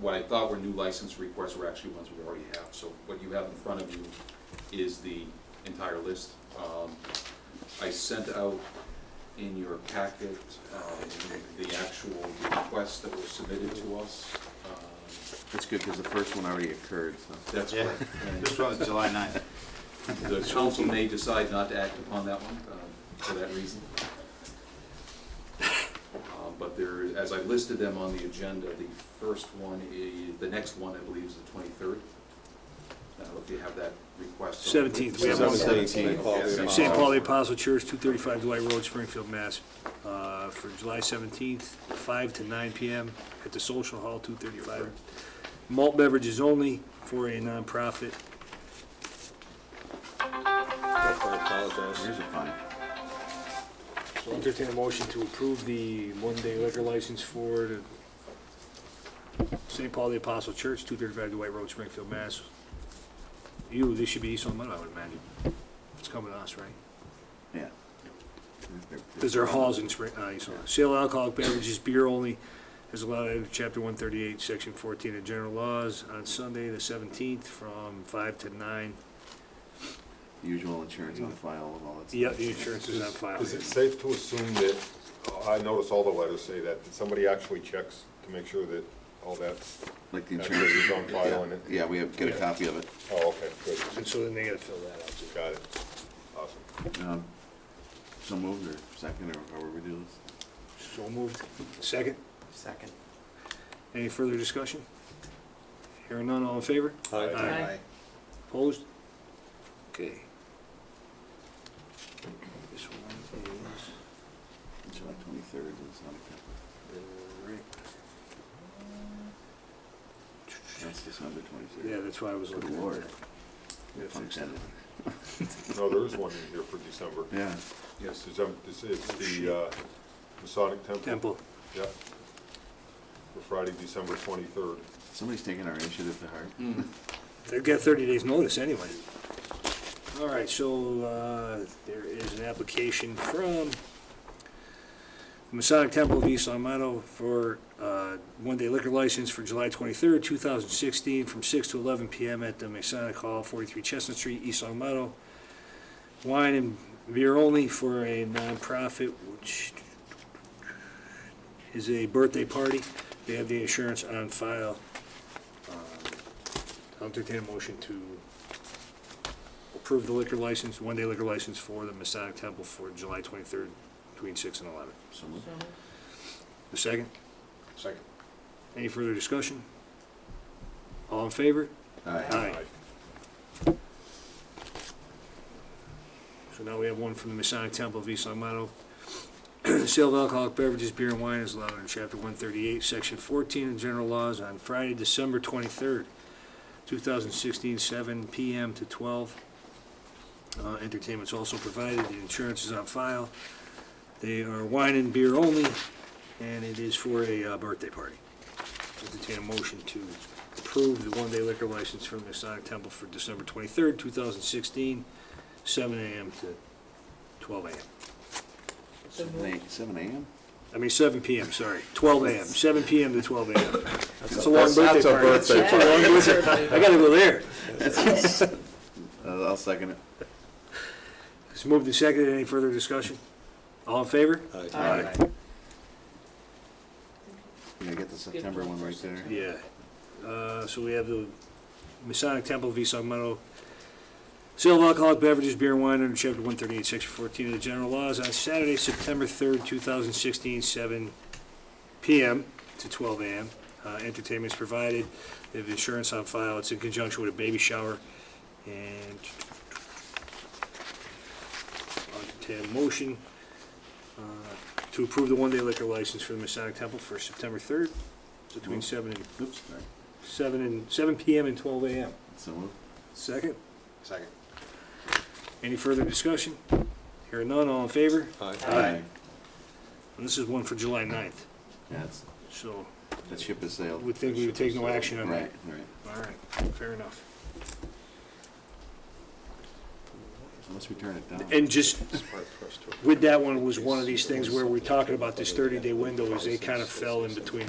what I thought were new license requests were actually ones we already have. So what you have in front of you is the entire list. Um, I sent out in your packet um, the actual requests that were submitted to us. Um, That's good, because the first one already occurred, so. That's Yeah. correct. And This one's July 9th. The council may decide not to act upon that one um, for that reason. Uh, But there, as I listed them on the agenda, the first one is, the next one, I believe, is the 23rd. I don't know if you have that request. 17th, we have one. Seventeenth. Uh, St. Paul the Apostle Church, 235 Dwight Road, Springfield, Mass. Uh, For July 17th, 5 to 9 PM at the Social Hall, 235. Malt beverages only for a nonprofit. Here's a fine. So entertain a motion to approve the one-day liquor license for the St. Paul the Apostle Church, 235 Dwight Road, Springfield, Mass. You, this should be East on Mud, I would imagine. It's coming to us, right? Yeah. Because there are halls in Spring, uh, so, sale of alcoholic beverages, beer only, is allowed in chapter one thirty-eight, section fourteen of general laws, on Sunday, the seventeenth, from five to nine. The Usual insurance on file of all that stuff. Yeah, the insurance is on file. Is it safe to assume that, I notice all the letters say that, that somebody actually checks to make sure that all that's, Like the That's insurance. what is on yeah, file in it. Yeah, we have, get a Yeah. copy of it. oh, okay, good, And so then they gotta fill that out. got it, awesome. Um, So moved or second or however we do So moved. Second, Second. any further discussion? Hearing none, all in favor? Opposed? Okay. This one is. this. July twenty-third is not a, that's December Yeah, twenty-third. that's why I was Good looking at lord. that. Yeah, fix that. No, there is one in here for December. Yeah, Yes, it's, um, this is the uh, Masonic Temple. Temple, Yeah. For Friday, December twenty-third. somebody's taking our initiative to heart. they've got thirty days' notice anyway. All right, so, uh, there is an application from the Masonic Temple of East Long Meadow for, uh, one-day liquor license for July twenty-third, two thousand sixteen, from six to eleven PM at the Masonic Hall, forty-three Chestnut Street, East Long Meadow. Wine and beer only for a nonprofit, which is a birthday party. They have the insurance on file. I'll entertain a motion to approve the liquor license, one-day liquor license for the Masonic Temple for July 23rd, between 6 and 11. So moved. The second, Second. any further discussion? All in favor? Aye. So now we have one from the Masonic Temple of East Long Meadow. Sale of alcoholic beverages, beer and wine is allowed in chapter one thirty-eight, section fourteen of general laws on Friday, December twenty-third, two thousand sixteen, seven PM to twelve. Uh, entertainment's also provided, the insurance is on file. They are wine and beer only, and it is for a uh, birthday party. Entertain a motion to approve the one-day liquor license from Masonic Temple for December twenty-third, two thousand sixteen, seven AM to twelve AM. Seven a- Seven AM? I mean, seven PM, sorry, twelve AM, seven PM to twelve AM. That's a long That's- that's birthday a party. birthday That's a long birthday party. I gotta go there. Uh, I'll second it. It's moved and seconded, any further discussion? All in favor? Aye. Yeah, get the September one right there. Yeah, uh, so we have the Masonic Temple of East Long Meadow. Sale of alcoholic beverages, beer and wine under chapter one thirty-eight, section fourteen of the general laws on Saturday, September third, two thousand sixteen, seven PM to twelve AM. Uh, entertainment's provided, they have insurance on file, it's in conjunction with a baby shower, and I'll entertain a motion, uh, to approve the one-day liquor license for the Masonic Temple for September third, between seven and Oops, sorry. Seven and, seven PM and twelve AM. So moved. Second, Second. any further discussion? Hearing none, all in favor? Aye. And this is one for July 9th, Yeah, it's- so that ship has sailed. we think we would take no action on Right, that. right. All right, fair enough. Unless we turn it down. And just with that one was one of these things where we're talking about this thirty-day window is they kind of fell in between